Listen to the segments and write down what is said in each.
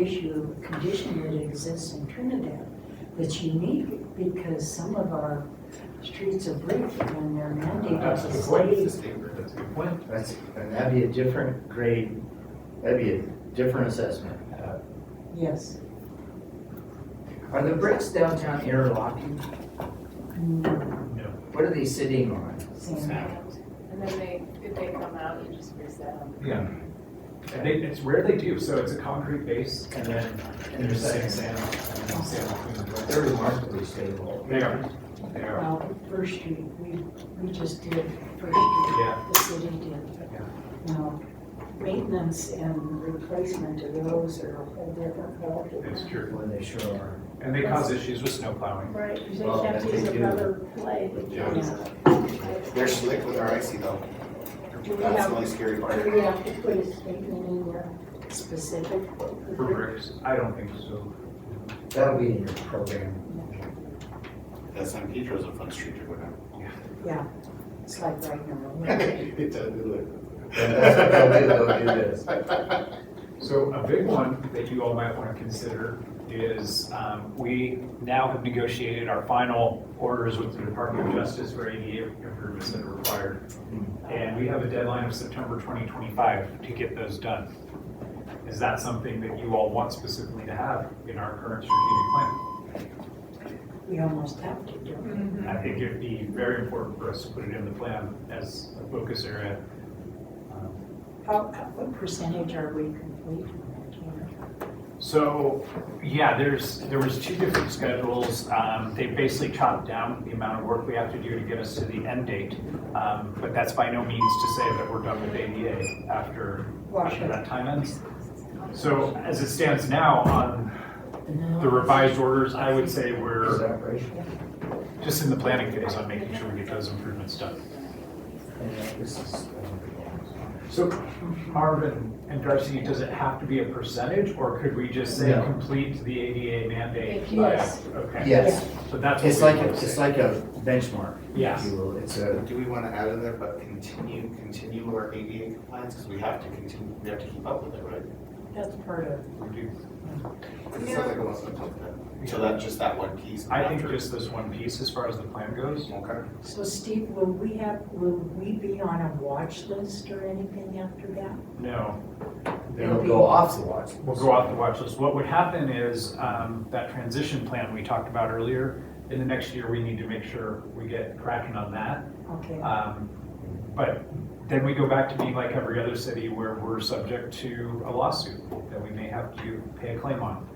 issue of condition that exists in Trinidad that's unique because some of our streets are brick and they're mandated That's a to good point, stay. it's a standard, that's a good point. That's, and that'd be a different grade, that'd be a different assessment. Uh, Yes. Are the bricks downtown interlocking? Mm, No. What are they sitting on? sand. And then they, if they come out, you just reset them. Yeah. And they, it's rare they do, so it's a concrete base and then there's setting sand, and then sand between the bricks. They're remarkably stable. They are, they are, Well, First Street, we, we just did First Street, yeah. the city did. Now, maintenance and replacement of those are a whole different It's ballgame. true. When they sure are. And they cause issues with snow plowing. Right, because they Well, have to that's use what a you do. rubber plate. Yeah. They're slick with our icy though. Do we That's have, the only scary part. do we have to put a statement in there? Specific. For bricks, I don't think so. That'll be in your program. That San Pedro's a fun street to go down. Yeah, it's like right now. It does, it looks. That's what they'll do, they'll do this. So a big one that you all might want to consider is, um, we now have negotiated our final orders with the Department of Justice for ADA improvements that are required. Mm-hmm. And we have a deadline of September 2025 to get those done. Is that something that you all want specifically to have in our current strategic plan? We almost have to do it. I think it'd be very important for us to put it in the plan as a focus area. Um, How, how- what percentage are we complete? on So, yeah, there's, there was two different schedules. Um, They basically chopped down the amount of work we have to do to get us to the end date. Um, But that's by no means to say that we're done with ADA after, after that time ends. So as it stands now on that? the revised orders, I would say Is we're that racial? just in the planning phase on making sure we get those improvements done. And that this is, uh, um, So Marvin and Darcy, does it have to be a percentage or could we just say No. complete the ADA mandate? Yes. by- Okay. Yes, So that's. what it's we like, wanna a- say. it's like a benchmark, if Yes. you will. It's a, Do we want to add in there, but continue, continue our ADA compliance, because we have to continue, we have to keep up with it, right? That's part of, We do. 'Cause it sounds like it wants to talk that. So that's just that one piece. I think after- just this one piece as far as the plan goes. Okay. so Steve, will we have, will we be on a watch list or anything after that? No. it'll go off the watch. We'll go off the watch list. What would happen is um, that transition plan we talked about earlier, in the next year, we need to make sure we get cracking on that. Okay, uh, Um, But then we go back to being like every other city where we're subject to a lawsuit that we may have to pay a claim on.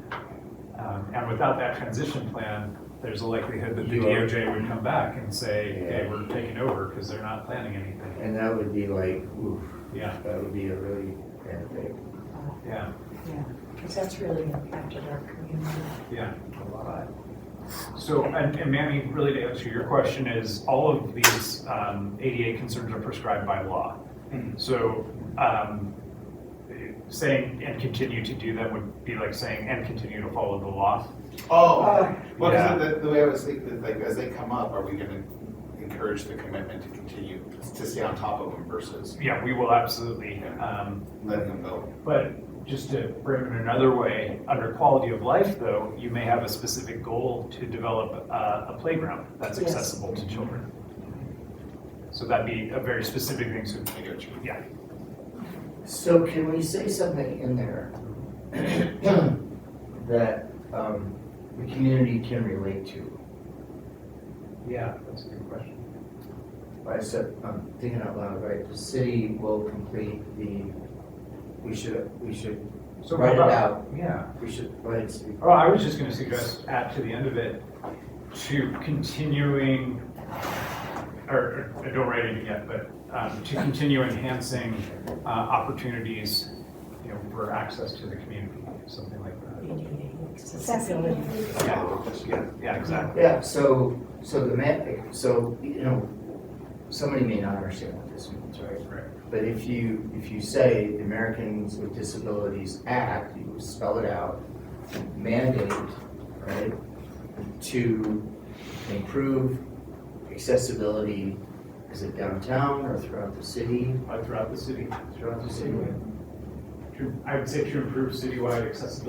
Um, And without that transition plan, there's a likelihood that the You are- DOJ would come back and say, Yeah. hey, we're taking over because they're not planning anything. And that would be like, oof, Yeah, that would be a really bad thing, yeah. yeah, because that's really impacted our community. Yeah, a lot. so, and and Mammy, really to answer your question is, all of these um, ADA concerns are prescribed by law. Hmm. Mhm. So um, saying, and continue to do them would be like saying, and continue to follow the law. Oh, well, Yeah. 'cause the, the way I was thinking, is like, as they come up, are we gonna encourage the commitment to continue, to stay on top of them versus Yeah, we will absolutely. um, letting them go? But just to bring it another way, under quality of life though, you may have a specific goal to develop uh, a playground that's Yes. accessible to children. So that'd be a very specific thing, so, I get you. yeah. So can we say something in there that um, the community can relate to? Yeah, that's a good question. I said, I'm thinking out loud, right? The city will complete the, we should, we should So write it how about- out. Yeah. We should, write it. Well, Oh, I was just gonna suggest add to the end of it, to continuing, or, or- I don't write it yet, but, um, to continue enhancing, uh, opportunities, you know, for access to the community, something like that. ADA Accessibility. accessibility. Yeah, yeah, yeah, exactly. Yeah, so, so the map, so, you know, somebody may not understand what this means, right? Right. But if you, if you say the Americans with Disabilities Act, you spell it out, mandate, right, to improve accessibility, is it downtown or throughout the city? Uh, Throughout the city, Throughout the city. to, I would say to improve citywide accessibility